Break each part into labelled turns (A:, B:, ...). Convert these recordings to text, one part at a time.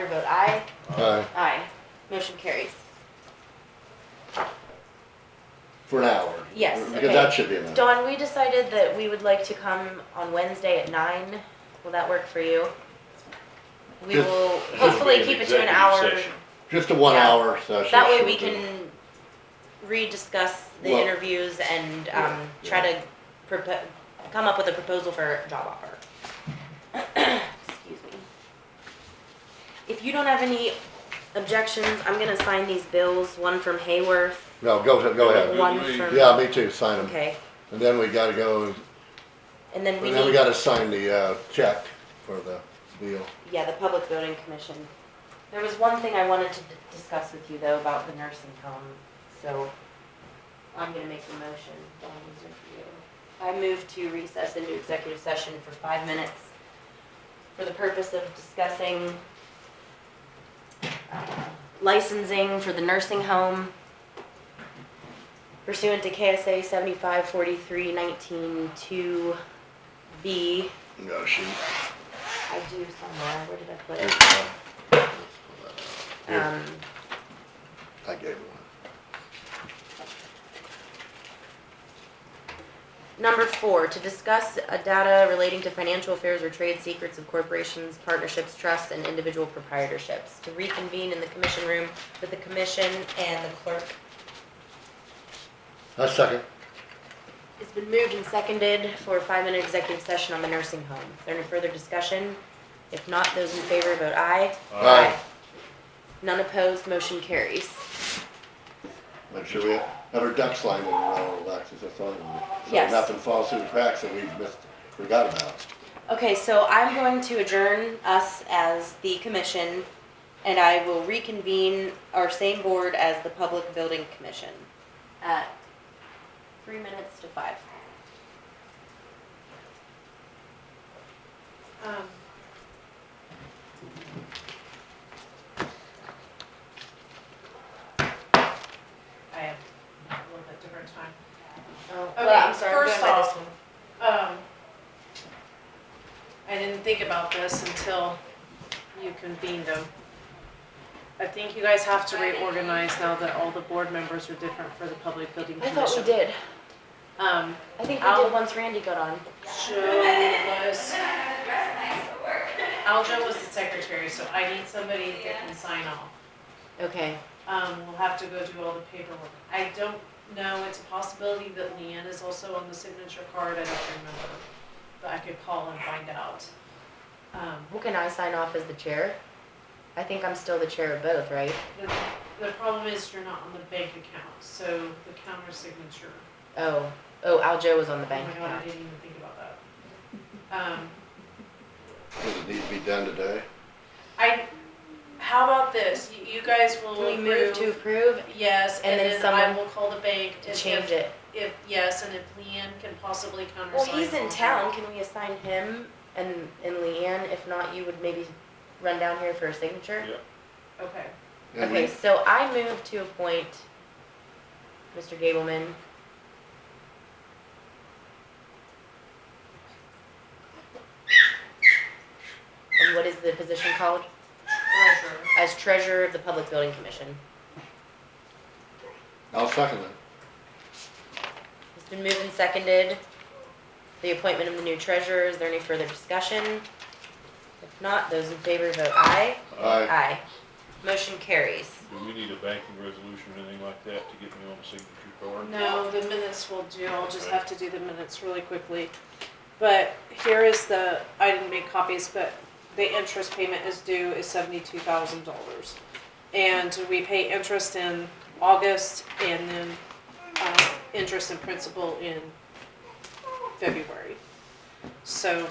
A: vote aye.
B: Aye,
A: Aye. Motion carries.
B: for an hour.
A: Yes, okay.
B: Because that should be enough.
A: Dawn, we decided that we would like to come on Wednesday at nine. Will that work for you? We
B: Just-
A: will
C: This will
A: hopefully
C: be an
A: keep it to an
C: executive
A: hour.
C: session.
B: Just a one
A: Yeah.
B: hour session.
A: That way
B: should
A: we
B: do.
A: can rediscuss the
B: Well-
A: interviews and, um,
B: Yeah,
A: try
B: yeah.
A: to propo- come up with a proposal for a job offer. Excuse me. If you don't have any objections, I'm gonna sign these bills, one from Hayworth,
B: No, go, go ahead.
A: one
C: me.
A: from.
B: Yeah, me too, sign them.
A: Okay,
B: And then we gotta go,
A: and then we
B: and then we
A: need,
B: gotta sign the, uh, check for the deal.
A: yeah, the Public Building Commission. There was one thing I wanted to d- discuss with you though about the nursing home, so I'm gonna make the motion. Dawn, these are for you. I move to recess into executive session for five minutes for the purpose of discussing uh, licensing for the nursing home pursuant to KSA seventy-five forty-three nineteen two B.
B: No, she.
A: I do somewhere, where did I put it?
B: I Here.
A: Um,
B: gave her
A: Number four, to discuss uh, data relating to financial affairs or trade secrets of corporations, partnerships, trusts, and individual proprietorships. To reconvene in the commission room with the commission and the clerk.
B: one. A second.
A: It's been moved and seconded for a five-minute executive session on the nursing home. Is there any further discussion? If not, those in favor vote aye.
B: Aye.
A: None opposed, motion carries.
B: Make sure we have our ducks lined in a row, Alexis, that's all. So
A: Yes.
B: Nothing falls through the cracks that we missed, forgot about.
A: Okay, so I'm going to adjourn us as the commission, and I will reconvene our same board as the Public Building Commission at three minutes to five.
D: Um, I have a little bit different time.
A: Oh,
D: Okay,
A: well, I'm sorry, I'm going
D: first
A: by this
D: off-
A: one.
D: Um, I didn't think about this until you convened them. I think you guys have to reorganize now that all the board members are different for the public building
A: I
D: commission.
A: thought we did.
D: Um,
A: I think we
D: I'll-
A: did once Randy got on.
D: Joe was. Aljo was the secretary, so I need somebody that can sign off.
A: Okay,
D: Um, we'll have to go do all the paperwork. I don't know, it's a possibility that Leanne is also on the signature card, I don't remember. But I could call and find out. Um,
A: who can I sign off as the chair? I think I'm still the chair of both, right?
D: the, the problem is you're not on the bank account, so the counter signature.
A: Oh, oh, Aljo was on the
D: Oh my
A: bank
D: God, I
A: account.
D: didn't even think about that. Um,
B: Does it need to be done today?
D: I, how about this? You- You guys will
A: Can we move to
D: approve-
A: approve
D: Yes,
A: And
D: and
A: then
D: then I
A: someone
D: will call the bank
A: to
D: if,
A: change
D: if,
A: it?
D: if, yes, and if Leanne can possibly countersign.
A: Well, he's in
D: all
A: town, can we assign him and, and Leanne, if not, you would maybe run down here for a signature?
C: Yeah.
D: that. Okay.
B: And we-
A: Okay, so I move to appoint Mr. Gableman. And what is the position called?
D: Treasurer.
A: As treasurer of the Public Building Commission.
B: I'll second it.
A: It's been moved and seconded, the appointment of the new treasurer, is there any further discussion? If not, those in favor vote aye.
B: Aye.
A: Aye. Motion carries.
C: Do we need a banking resolution or anything like that to get me on the signature card?
D: No, the minutes will do, I'll just have to do the minutes really quickly. But here is the, I didn't make copies, but the interest payment is due is seventy-two thousand dollars. And we pay interest in August and then, uh, interest and principal in February. So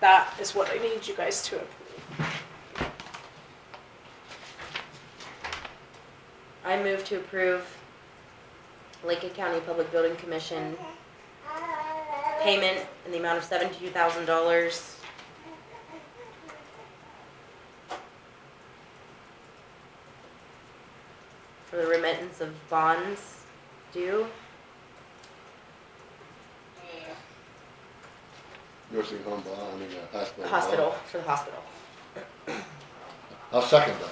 D: that is what I need you guys to approve.
A: I move to approve Lincoln County Public Building Commission payment in the amount of seventy-two thousand dollars. For the remittance of bonds due,
B: Nursing home, blah, I mean, uh, hospital. blah.
A: hospital, for the hospital.
B: I'll second that.